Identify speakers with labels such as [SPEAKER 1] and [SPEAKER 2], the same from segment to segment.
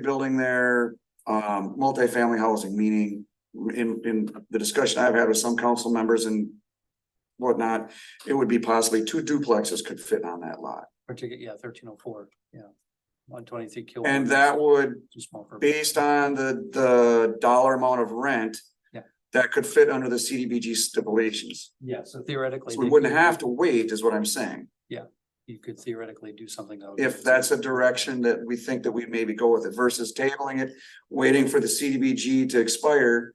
[SPEAKER 1] building there, um, multifamily housing, meaning in, in the discussion I've had with some council members and whatnot, it would be possibly two duplexes could fit on that lot.
[SPEAKER 2] particular, yeah, thirteen oh four, yeah. One twenty-three kilowatt.
[SPEAKER 1] And that would,
[SPEAKER 2] Too small for.
[SPEAKER 1] based on the, the dollar amount of rent,
[SPEAKER 2] Yeah.
[SPEAKER 1] that could fit under the CDBG stipulations.
[SPEAKER 2] Yeah, so theoretically.
[SPEAKER 1] So we wouldn't have to wait is what I'm saying.
[SPEAKER 2] You could theoretically do something. of-
[SPEAKER 1] If that's a direction that we think that we maybe go with it versus tabling it, waiting for the CDBG to expire.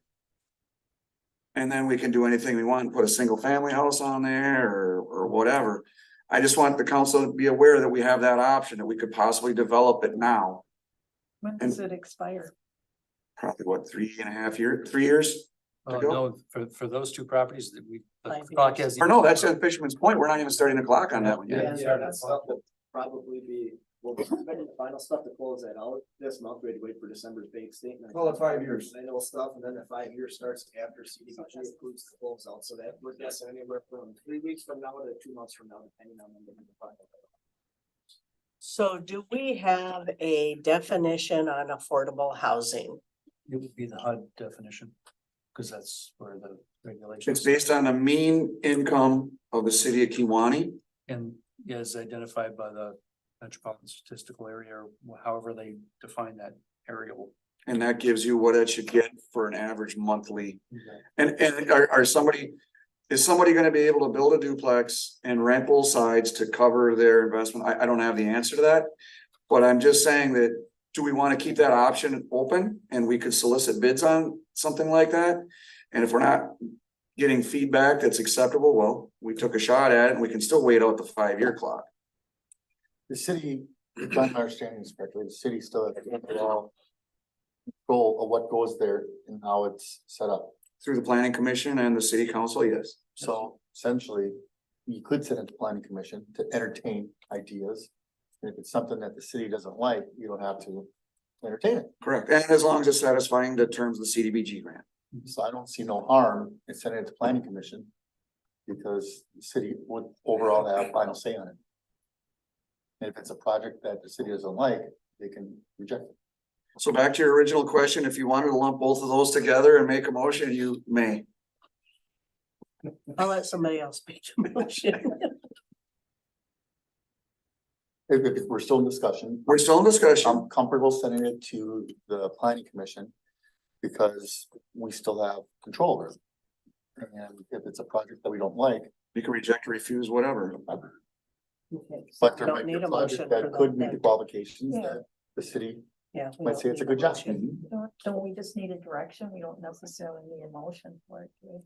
[SPEAKER 1] And then we can do anything we want, put a single family house on there or, or whatever. I just want the council to be aware that we have that option, that we could possibly develop it now.
[SPEAKER 3] When does it expire?
[SPEAKER 1] Probably what, three and a half year, three years?
[SPEAKER 2] Oh,
[SPEAKER 1] go.
[SPEAKER 2] no, for, for those two properties that we. the
[SPEAKER 3] Five
[SPEAKER 2] clock
[SPEAKER 3] years.
[SPEAKER 2] has-
[SPEAKER 1] Or no, that's at Fisherman's Point. We're not even starting the clock on that one yet.
[SPEAKER 2] Yeah,
[SPEAKER 4] Yeah,
[SPEAKER 2] yeah,
[SPEAKER 4] that
[SPEAKER 2] that's-
[SPEAKER 4] stuff will probably be, we'll be expecting the final stuff to close that out this month, we had to wait for December's bank statement.
[SPEAKER 1] Call it five years.
[SPEAKER 4] Annual stuff, and then the five years starts after CDBG includes the close out, so that would guess anywhere from three weeks from now to two months from now, depending on when they do the final.
[SPEAKER 3] So do we have a definition on affordable housing?
[SPEAKER 2] It would be the HUD definition, because that's where the regulations.
[SPEAKER 1] It's based on the mean income of the city of Kiwanee.
[SPEAKER 2] And is identified by the metropolitan statistical area, or however they define that aerial.
[SPEAKER 1] And that gives you what it should get for an average monthly. And, and are, are somebody, is somebody gonna be able to build a duplex and rent both sides to cover their investment? I, I don't have the answer to that. But I'm just saying that, do we wanna keep that option open and we could solicit bids on something like that? And if we're not getting feedback that's acceptable, well, we took a shot at it and we can still wait out the five-year clock.
[SPEAKER 5] The city, if I'm understanding this correctly, the city still has the overall Goal of what goes there and how it's set up.
[SPEAKER 1] Through the planning commission and the city council, yes.
[SPEAKER 5] So essentially, you could send it to planning commission to entertain ideas. And if it's something that the city doesn't like, you don't have to entertain it.
[SPEAKER 1] Correct. And as long as it's satisfying the terms of the CDBG grant.
[SPEAKER 5] So I don't see no harm in sending it to planning commission. Because the city would overall have final say on it. And if it's a project that the city doesn't like, they can reject it.
[SPEAKER 1] So back to your original question, if you wanted to lump both of those together and make a motion, you may.
[SPEAKER 3] I'll let somebody else make a motion.
[SPEAKER 5] If, if we're still in discussion,
[SPEAKER 1] We're still in discussion.
[SPEAKER 5] I'm comfortable sending it to the planning commission because we still have control over it. And if it's a project that we don't like,
[SPEAKER 1] You can reject, refuse, whatever.
[SPEAKER 5] but there might
[SPEAKER 3] Don't
[SPEAKER 5] be a
[SPEAKER 3] need a
[SPEAKER 5] project
[SPEAKER 3] motion for
[SPEAKER 5] that could meet the
[SPEAKER 3] that.
[SPEAKER 5] qualifications
[SPEAKER 3] Yeah.
[SPEAKER 5] that the city
[SPEAKER 3] Yeah. we
[SPEAKER 5] might
[SPEAKER 3] don't
[SPEAKER 5] say it's a
[SPEAKER 3] need
[SPEAKER 5] good job.
[SPEAKER 3] motion.
[SPEAKER 6] Don't, don't we just need a direction? We don't necessarily need a motion for it. do we?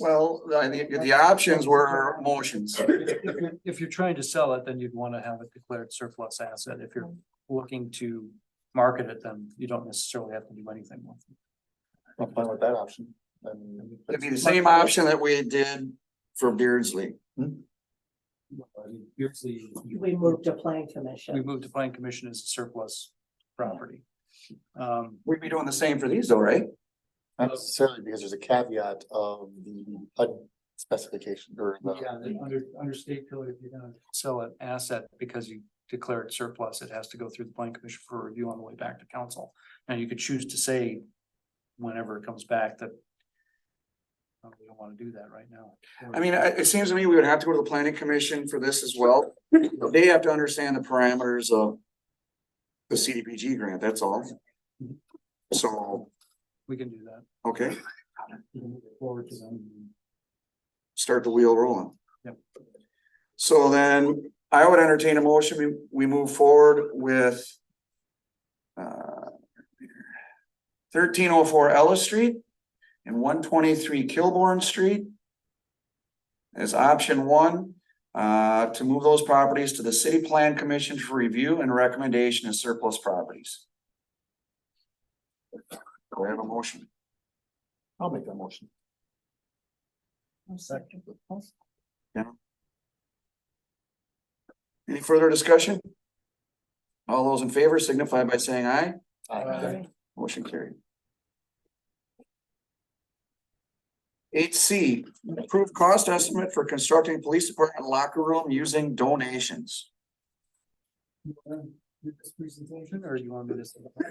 [SPEAKER 1] Well, I think the options were motions.
[SPEAKER 2] If you're- If you're trying to sell it, then you'd want to have it declared surplus asset. If you're looking to market it, then you don't necessarily have to do anything with it.
[SPEAKER 5] I'm fine with that option. I mean,
[SPEAKER 1] It'd be the same option that we did for Beardsley.
[SPEAKER 2] Usually,
[SPEAKER 3] We moved to plan
[SPEAKER 2] we
[SPEAKER 3] commission.
[SPEAKER 2] moved to plan commission as a surplus property. Um,
[SPEAKER 1] We'd be doing the same for these though, right?
[SPEAKER 5] Not necessarily because there's a caveat of the HUD specification or the.
[SPEAKER 2] yeah, the under, under state code, if you're gonna sell an asset because you declare it surplus, it has to go through the plan commission for review on the way back to council. Now, you could choose to say whenever it comes back that uh, we don't want to do that right now.
[SPEAKER 1] I mean, I- it seems to me we would have to go to the planning commission for this as well. They have to understand the parameters of the CDBG grant, that's all. So,
[SPEAKER 2] We can do that.
[SPEAKER 1] okay,
[SPEAKER 2] Move it Forward to them.
[SPEAKER 1] start the wheel rolling.
[SPEAKER 2] Yep.
[SPEAKER 1] So then I would entertain a motion, we, we move forward with uh, thirteen oh four Ellis Street and one twenty-three Kilbourne Street as option one, uh, to move those properties to the city plan commission for review and recommendation as surplus properties. Do I have a motion?
[SPEAKER 5] I'll make that motion.
[SPEAKER 1] Any further discussion? All those in favor signify by saying aye.
[SPEAKER 5] Aye.
[SPEAKER 1] Motion carried. Eight C, approved cost estimate for constructing police department locker room using donations.
[SPEAKER 2] You wanna do this presentation, or you want me to?